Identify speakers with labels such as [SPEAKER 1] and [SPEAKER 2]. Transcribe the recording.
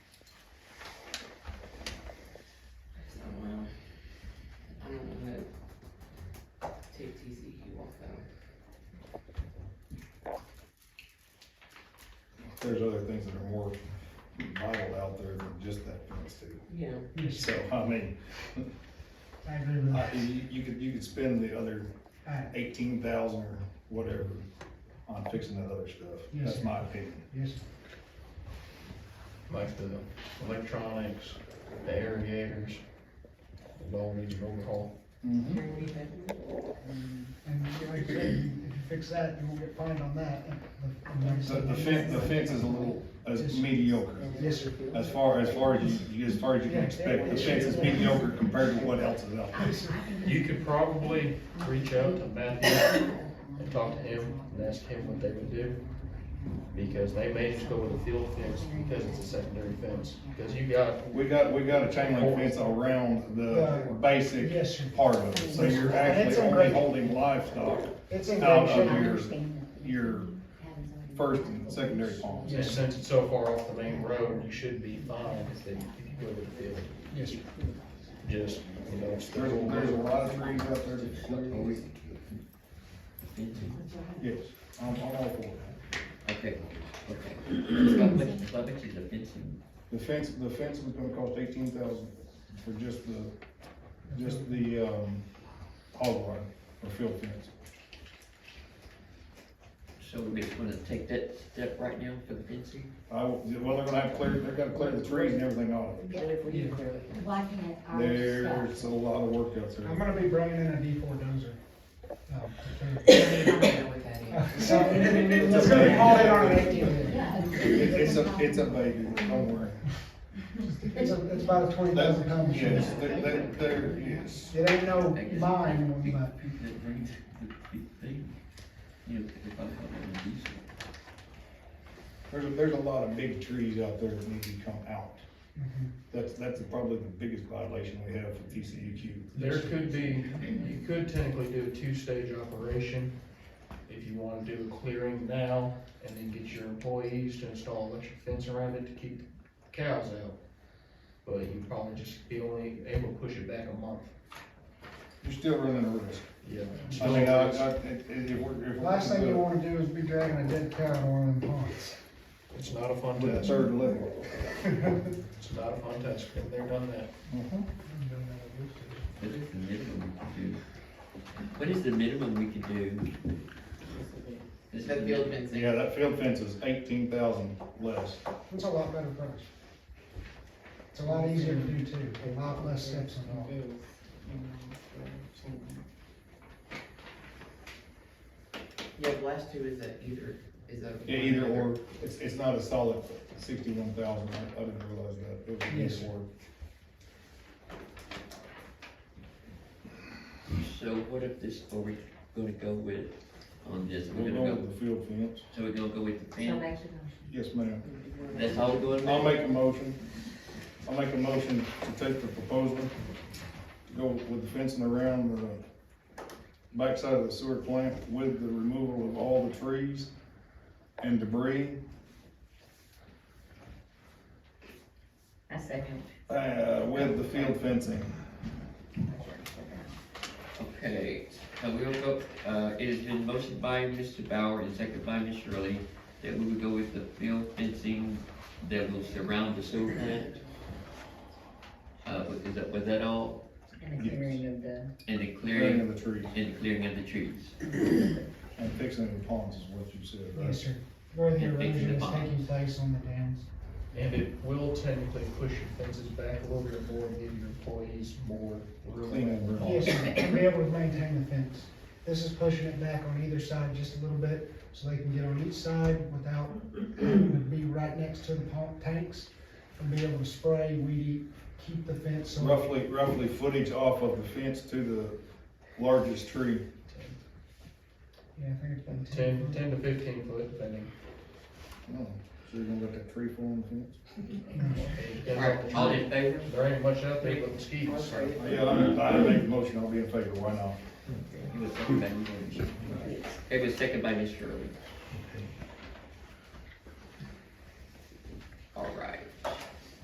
[SPEAKER 1] E,
[SPEAKER 2] there's other things that are more vital out there than just that fence too.
[SPEAKER 3] Yeah,
[SPEAKER 4] Yes,
[SPEAKER 2] So, I mean,
[SPEAKER 4] I agree with
[SPEAKER 2] I-
[SPEAKER 4] that. Uh,
[SPEAKER 2] you, you could, you could spend the other
[SPEAKER 4] Alright,
[SPEAKER 2] eighteen thousand or whatever on fixing that other stuff.
[SPEAKER 4] Yes,
[SPEAKER 2] That's
[SPEAKER 4] sir.
[SPEAKER 2] my opinion.
[SPEAKER 4] yes,
[SPEAKER 5] like the electronics, the aerators. It all needs an overhaul.
[SPEAKER 4] Mm-hmm.
[SPEAKER 2] Mhm.
[SPEAKER 3] very good.
[SPEAKER 4] and like you said, if you fix that, you won't get fined on that. And like I
[SPEAKER 2] The,
[SPEAKER 4] said,
[SPEAKER 2] the fence, the fence is a little, is mediocre.
[SPEAKER 4] Yes, sir.
[SPEAKER 2] As far, as far as you- you, as far as you can expect, the fence is mediocre compared to what else is out there.
[SPEAKER 5] You could probably reach out to Matthew and talk to him and ask him what they would do. Because they may just go with a field fence because it's a secondary fence, because you got,
[SPEAKER 2] We got, we got a chain link fence around the basic
[SPEAKER 4] Uh, Yes, sir.
[SPEAKER 2] part of it, so you're actually
[SPEAKER 4] It's in
[SPEAKER 2] only
[SPEAKER 4] great-
[SPEAKER 2] holding livestock
[SPEAKER 4] It's in
[SPEAKER 2] out
[SPEAKER 4] great
[SPEAKER 2] of
[SPEAKER 4] shape.
[SPEAKER 2] your, your first and secondary ponds.
[SPEAKER 5] just since it's so far off the main road, you should be fine if they, if you go with a field.
[SPEAKER 4] Yes, sir.
[SPEAKER 5] Just, you know, it's
[SPEAKER 2] There's, a- there's a lot of trees out there that look ugly. Yes, I'm, I'm all for it.
[SPEAKER 1] Okay, okay. How much, how much is the fencing?
[SPEAKER 2] The fence, the fence was gonna cost eighteen thousand for just the, just the, um, hog barn or field fence.
[SPEAKER 1] So we're just gonna take that step right now for the fencing?
[SPEAKER 2] I, will- well, they're gonna have to clear, they're gonna clear the trees and everything off.
[SPEAKER 6] Why can't our
[SPEAKER 2] There's a lot of work out
[SPEAKER 4] I'm
[SPEAKER 2] there.
[SPEAKER 4] gonna be bringing in a D four dozer. um, to clear it. So, It's gonna be hauled in on an eighteen.
[SPEAKER 6] stuff?
[SPEAKER 2] It- It's a, it's a baby, don't worry.
[SPEAKER 4] It's, a- it's about a twenty thousand pound
[SPEAKER 2] That,
[SPEAKER 4] machine.
[SPEAKER 2] yes, that, that, there is.
[SPEAKER 4] It ain't no mine,
[SPEAKER 1] Big-
[SPEAKER 4] but
[SPEAKER 1] big- That brings the big thing, you know, if I'm talking about diesel.
[SPEAKER 2] There's, there's a lot of big trees out there that need to come out. That's, that's probably the biggest violation we have for TCUQ.
[SPEAKER 5] There could be, you could technically do a two-stage operation if you wanna do a clearing now and then get your employees to install electric fence around it to keep the cows out. But you'd probably just be only able to push it back a month.
[SPEAKER 2] You're still running a risk.
[SPEAKER 5] Yeah.
[SPEAKER 2] I mean, I, I, if, if we're. if we're-
[SPEAKER 4] last thing you wanna do is be dragging a dead cow to one of them ponds.
[SPEAKER 5] It's not a fun
[SPEAKER 2] With the
[SPEAKER 5] task.
[SPEAKER 2] third level.
[SPEAKER 5] It's not a fun task. Been there, done that.
[SPEAKER 2] Mm-hmm.
[SPEAKER 1] What is the minimum we can do? What is the minimum we can do? Is that the old fencing?
[SPEAKER 2] Yeah, that field fence is eighteen thousand less.
[SPEAKER 4] It's a lot better price. It's a lot easier to do too, a lot less steps involved.
[SPEAKER 7] Yeah, the last two is that either, is that.
[SPEAKER 2] Yeah, either or, it's, it's not a solid sixty-one thousand, I, I didn't realize that, it
[SPEAKER 4] Yes,
[SPEAKER 2] was
[SPEAKER 4] sir.
[SPEAKER 2] either or.
[SPEAKER 1] So what if this, are we gonna go with on this? Oh, We're
[SPEAKER 2] We're
[SPEAKER 1] gonna
[SPEAKER 2] going
[SPEAKER 1] go,
[SPEAKER 2] with the field fence,
[SPEAKER 1] so we're gonna go with the
[SPEAKER 6] So
[SPEAKER 1] fence?
[SPEAKER 6] make the
[SPEAKER 2] yes, ma'am.
[SPEAKER 6] motion.
[SPEAKER 1] That's all we're going with?
[SPEAKER 2] I'll make a motion, I'll make a motion to take the proposal, go with the fencing around the backside of the sewer plant with the removal of all the trees and debris,
[SPEAKER 6] I second.
[SPEAKER 2] uh, with the field fencing.
[SPEAKER 1] Okay, so we will go, uh, it has been motioned by Mr. Bauer and seconded by Ms. Shirley that we would go with the field fencing that will surround the sewer plant. Uh, was- is that, was that all?
[SPEAKER 6] And the clearing of the,
[SPEAKER 1] And the
[SPEAKER 2] Clearing
[SPEAKER 1] clearing,
[SPEAKER 2] of the trees
[SPEAKER 1] and the clearing of the trees.
[SPEAKER 2] and fixing the ponds is what you said, right?
[SPEAKER 4] Yes, sir. Where the
[SPEAKER 1] Yeah, fixing
[SPEAKER 4] erosion
[SPEAKER 1] the
[SPEAKER 4] is
[SPEAKER 1] pond.
[SPEAKER 4] taking place on the dams.
[SPEAKER 5] And it will technically push your fences back a little bit more and give your employees more
[SPEAKER 2] Clean
[SPEAKER 5] room.
[SPEAKER 2] and room.
[SPEAKER 4] Yes, sir, and be able to maintain the fence. This is pushing it back on either side just a little bit, so they can get on each side without, would be right next to the pump tanks, and be able to spray, weed, eat, keep the fence. so-
[SPEAKER 2] Roughly, roughly footage off of the fence to the largest tree.
[SPEAKER 4] Yeah, I think it's been
[SPEAKER 5] Ten, ten to fifteen foot depending.
[SPEAKER 2] Oh, So you're gonna let that tree fall on the fence?
[SPEAKER 5] It depends on the
[SPEAKER 1] Alright, all
[SPEAKER 5] tree.
[SPEAKER 1] in favor?
[SPEAKER 5] There ain't much out there but mosquitoes, so.
[SPEAKER 2] Yeah, I'm, I make the motion, I'll be in favor, why not?
[SPEAKER 1] It was seconded by Ms. Shirley. It was seconded by Ms. Shirley.